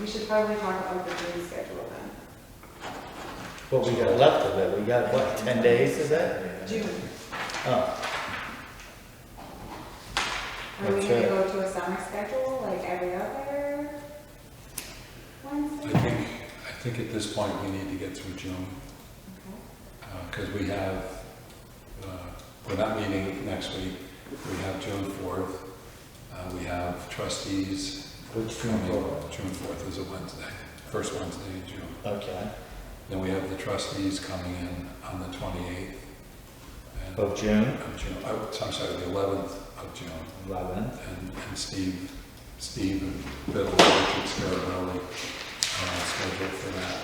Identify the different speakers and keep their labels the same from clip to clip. Speaker 1: We should probably talk about the June schedule then.
Speaker 2: What we got left of it, we got, what, ten days, is that?
Speaker 1: June,
Speaker 2: Oh,
Speaker 1: are we
Speaker 2: That's
Speaker 1: gonna
Speaker 2: it.
Speaker 1: go to a summer schedule like every other
Speaker 3: I
Speaker 1: Wednesday?
Speaker 3: think, I think at this point, we need to get through June, because we have, uh, we're not meeting next week. We have June 4th, uh, we have trustees.
Speaker 2: which June fourth?
Speaker 3: June 4th is a Wednesday, first Wednesday in June.
Speaker 2: Okay,
Speaker 3: Then we have the trustees coming in on the 28th. and-
Speaker 2: of June,
Speaker 3: Of June, oh, I'm sorry, the 11th of June.
Speaker 2: eleven.
Speaker 3: and, and Steve, Steve and Bill, Richard Scarabelli, uh, scheduled for that.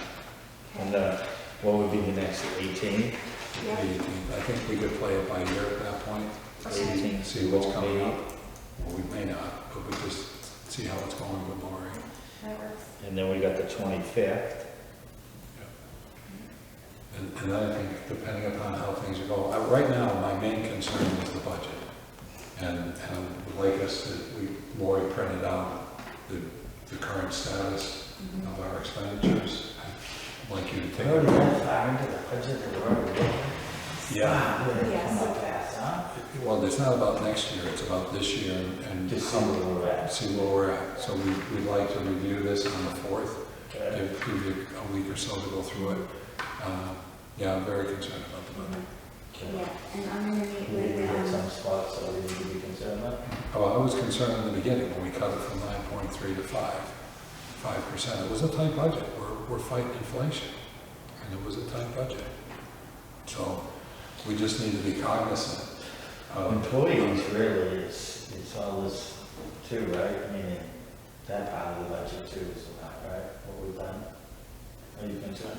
Speaker 2: And then, what would be the next, eighteen?
Speaker 3: the
Speaker 1: Yeah.
Speaker 3: 18th. I think we could play it by ear at that point,
Speaker 1: Okay.
Speaker 2: Eighteen.
Speaker 3: see what's coming up. Well, we may not, but we just see how it's going with Lori.
Speaker 1: That works.
Speaker 2: And then we got the twenty-fifth.
Speaker 3: And, and then I think depending upon how things go, uh, right now, my main concern is the budget. And, and I would like us to, we, Lori printed out the, the current status of our expenditures. I'd like you to take. a look.
Speaker 2: far into the budget that we're already
Speaker 3: Yeah.
Speaker 1: Yeah, so fast.
Speaker 3: Well, it's not about next year, it's about this year and
Speaker 2: Just see
Speaker 3: see
Speaker 2: where we're at.
Speaker 3: where we're at. So we, we'd like to review this on the fourth,
Speaker 2: Okay.
Speaker 3: give give you a week or so to go through it. Uh, Yeah, I'm very concerned about the budget.
Speaker 1: Mm-hmm. Yeah, and I'm gonna meet
Speaker 2: We we
Speaker 1: with,
Speaker 2: got
Speaker 1: um,
Speaker 2: some spots that we need to be concerned about.
Speaker 3: Oh, I was concerned in the beginning when we cut it from nine point three to five, five percent. It was a tight budget, we're, we're fighting inflation, and it was a tight budget. So we just need to be cognizant of.
Speaker 2: Employees really is, is all this too, right? I mean, that part of the budget too is a lot, right? What we've done. Are you concerned?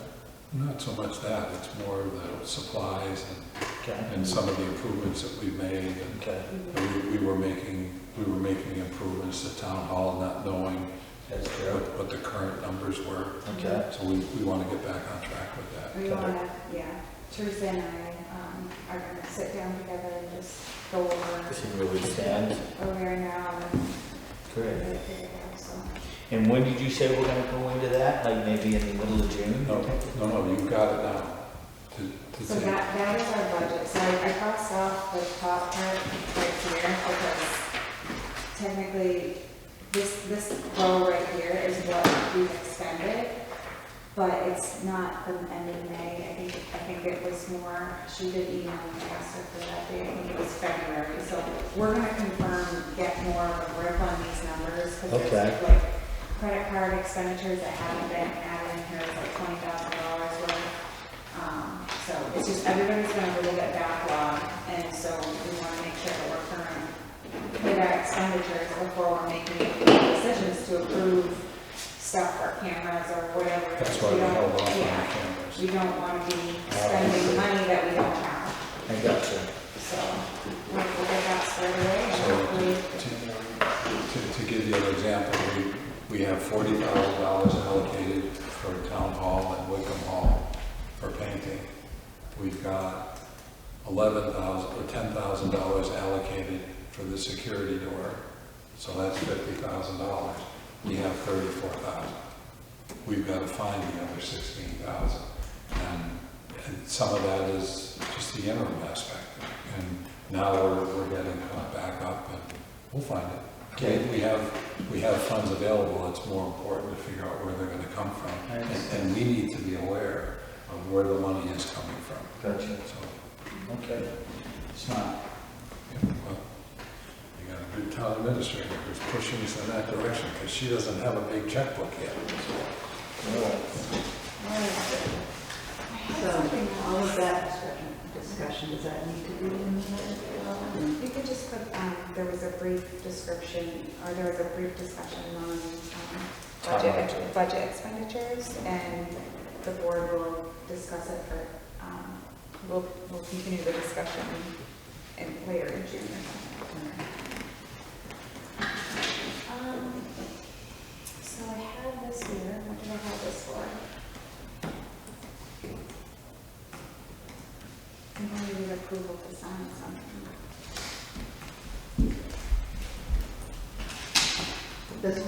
Speaker 3: Not so much that, it's more the supplies and
Speaker 2: Okay.
Speaker 3: and some of the improvements that we've made,
Speaker 2: Okay,
Speaker 3: and we, we were making, we were making improvements to town hall, not knowing
Speaker 2: that's
Speaker 3: what,
Speaker 2: true.
Speaker 3: what the current numbers were.
Speaker 2: Okay.
Speaker 3: So we, we want to get back on track with that.
Speaker 1: we wanna, yeah, Teresa and I, um, are gonna sit down together and just go over
Speaker 2: See where we stand.
Speaker 1: where we are now and
Speaker 2: Great.
Speaker 1: really figure it out, so.
Speaker 2: And when did you say we're gonna go into that? Like maybe in the middle of June?
Speaker 3: No, no, no, you've got it now. To, to
Speaker 1: So
Speaker 3: take,
Speaker 1: that, that is our budget, so I I crossed off the top part right here, because technically, this, this row right here is what we've expended, but it's not the end of May, I think, I think it was more, she did email me, asked her for that date, I think it was February, so we're gonna confirm, get more of a grip on these numbers, because
Speaker 2: Okay.
Speaker 1: there's like credit card expenditures that haven't been added in here, it's like twenty thousand dollars worth, um, So it's just, everybody's going to really get backlog, and so we want to make sure that we're current with our expenditures before we're making decisions to approve stuff for cameras or whatever.
Speaker 3: that's why we
Speaker 1: don't-
Speaker 3: held off on the
Speaker 1: Yeah,
Speaker 3: cameras.
Speaker 1: we don't want to be spending money that we don't have,
Speaker 2: I got you.
Speaker 1: so we'll we'll get that squared away, and hopefully,
Speaker 3: So, to, to, to give you an example, we, we have forty thousand dollars allocated for town hall and Wickham Hall for painting. We've got eleven thousand, or ten thousand dollars allocated for the security door, so that's fifty thousand dollars. We have thirty-four thousand. We've got to find the other sixteen thousand. And, and some of that is just the interim aspect. And now we're, we're getting caught back up and we'll find it.
Speaker 2: Okay.
Speaker 3: We- We have, we have funds available, it's more important to figure out where they're gonna come from.
Speaker 2: I
Speaker 3: And,
Speaker 2: understand.
Speaker 3: and we need to be aware of where the money is coming from.
Speaker 2: Got you.
Speaker 3: So,
Speaker 2: Okay. Smart.
Speaker 3: yeah, well, you got a good town administrator who's pushing us in that direction, because she doesn't have a big checkbook yet.
Speaker 2: Alright.
Speaker 4: So, all of that discussion, does that need to be in the minutes at all?
Speaker 1: you could just put, um, there was a brief description, or there was a brief discussion on um, budget,
Speaker 2: Timeline.
Speaker 1: budget expenditures, and the board will discuss it for, um, we'll, we'll continue the discussion in, later in June or something.